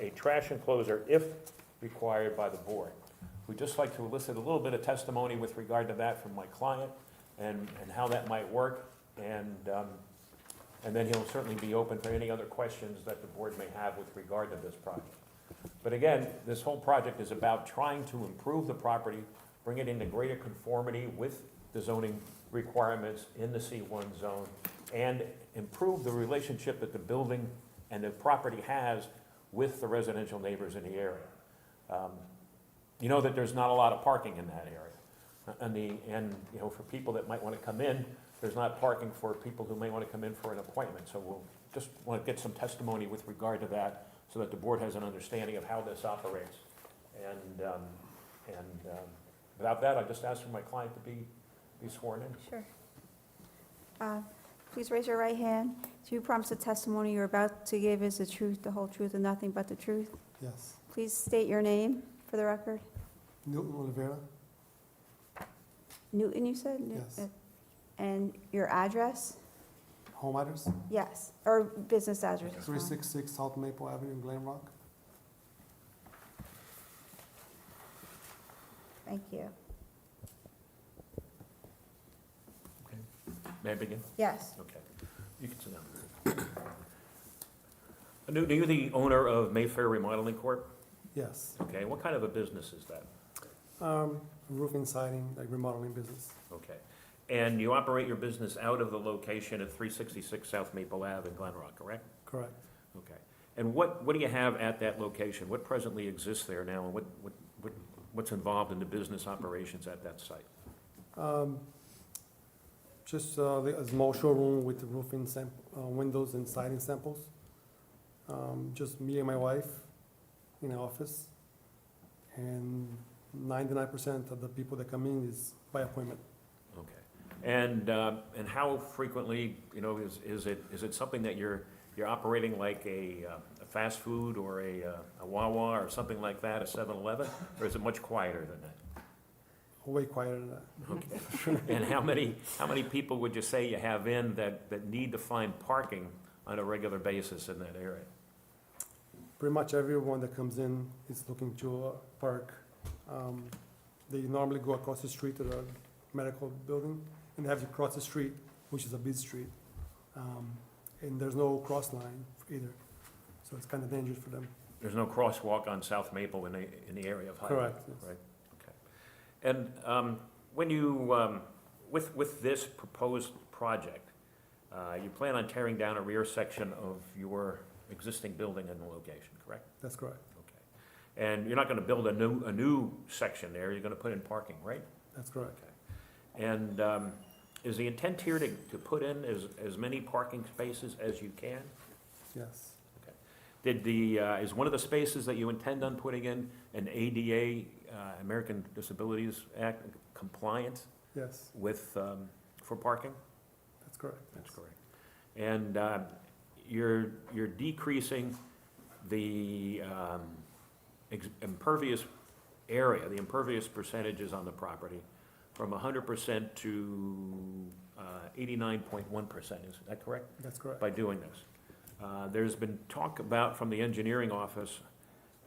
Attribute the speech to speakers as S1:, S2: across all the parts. S1: a trash enclosure if required by the board. We'd just like to elicit a little bit of testimony with regard to that from my client and, and how that might work. And, um, and then he'll certainly be open for any other questions that the board may have with regard to this project. But again, this whole project is about trying to improve the property, bring it into greater conformity with the zoning requirements in the C1 zone, and improve the relationship that the building and the property has with the residential neighbors in the area. Um, You know that there's not a lot of parking in that area. Uh, And the, and, you know, for people that might want to come in, there's not parking for people who may want to come in for an appointment. So we'll just want to get some testimony with regard to that, so that the board has an understanding of how this operates. And, um, and um, without that, I just ask for my client to be, be sworn in.
S2: Sure. Uh, Please raise your right hand. Do you promise the testimony you're about to give is the truth, the whole truth, and nothing but the truth?
S3: Yes.
S2: Please state your name for the record.
S3: Newton Olivera,
S2: Newton, you said? New-
S3: Yes.
S2: uh, And your address?
S3: home address,
S2: Yes, or business address. is fine.
S3: 366 South Maple Avenue, Glen Rock.
S2: Thank you.
S1: May I begin?
S2: Yes,
S1: Okay. You can sit down. Newton, are you the owner of Mayfair Remodeling Corp.?
S3: Yes.
S1: Okay, what kind of a business is that?
S3: Um, Roofing siding, like remodeling business.
S1: Okay. And you operate your business out of the location at 366 South Maple Ave in Glen Rock, correct?
S3: Correct.
S1: Okay. And what, what do you have at that location? What presently exists there now, and what, what, what what's involved in the business operations at that site?
S3: Um, Just uh, the- a small showroom with roofing sam- uh, windows and siding samples. Um, Just me and my wife in the office. And 99% of the people that come in is by appointment.
S1: Okay. And, uh, and how frequently, you know, is, is it, is it something that you're, you're operating like a uh, a fast food or a uh, a Wawa or something like that, a 7-Eleven? Or is it much quieter than that?
S3: Way quieter than that.
S1: Okay. And how many, how many people would you say you have in that, that need to find parking on a regular basis in that area?
S3: pretty much everyone that comes in is looking to uh, park. Um, They normally go across the street to the medical building and have to cross the street, which is a busy street. Um, And there's no cross line either, so it's kind of dangerous for them.
S1: There's no crosswalk on South Maple in the, in the area of Highland.
S3: Correct, yes.
S1: Right, okay. And um, when you, um, with, with this proposed project, uh, you plan on tearing down a rear section of your existing building in the location, correct?
S3: That's correct,
S1: Okay. And you're not gonna build a new, a new section there, you're gonna put in parking, right?
S3: that's correct.
S1: And um, is the intent here to, to put in as, as many parking spaces as you can?
S3: Yes,
S1: Did the, uh, is one of the spaces that you intend on putting in an ADA, uh, American Disabilities Act compliant
S3: yes,
S1: with, um, for parking?
S3: that's correct.
S1: That's correct. And um, you're, you're decreasing the um, ex- impervious area, the impervious percentages on the property from 100% to uh, 89.1%, is that correct?
S3: That's correct.
S1: by doing this. Uh, There's been talk about, from the engineering office,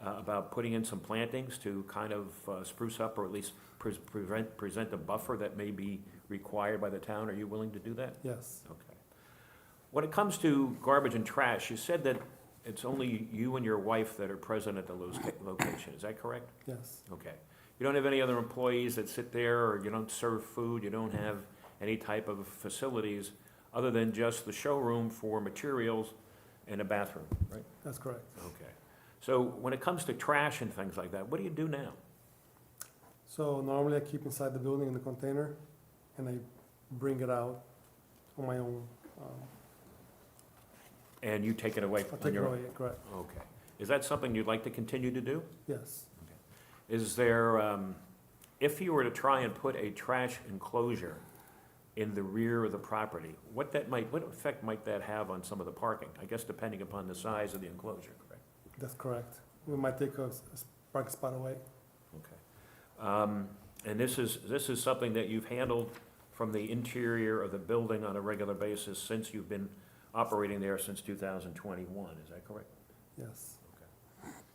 S1: uh, about putting in some plantings to kind of uh, spruce up or at least pre- prevent, present a buffer that may be required by the town. Are you willing to do that?
S3: Yes,
S1: Okay. When it comes to garbage and trash, you said that it's only you and your wife that are present at the lo- location. Is that correct?
S3: yes,
S1: Okay. You don't have any other employees that sit there, or you don't serve food, you don't have any type of facilities other than just the showroom for materials and a bathroom, right?
S3: that's correct.
S1: Okay. So when it comes to trash and things like that, what do you do now?
S3: So normally I keep inside the building in the container and I bring it out on my own. um,
S1: And you take it away
S3: I
S1: on
S3: take it
S1: your own?
S3: away, correct,
S1: Okay. Is that something you'd like to continue to do?
S3: yes.
S1: Is there, um, if you were to try and put a trash enclosure in the rear of the property, what that might, what effect might that have on some of the parking? I guess depending upon the size of the enclosure, correct?
S3: That's correct. We might take a s- s- park spot away.
S1: Okay. Um, and this is, this is something that you've handled from the interior of the building on a regular basis since you've been operating there since two thousand twenty-one, is that correct?
S3: Yes,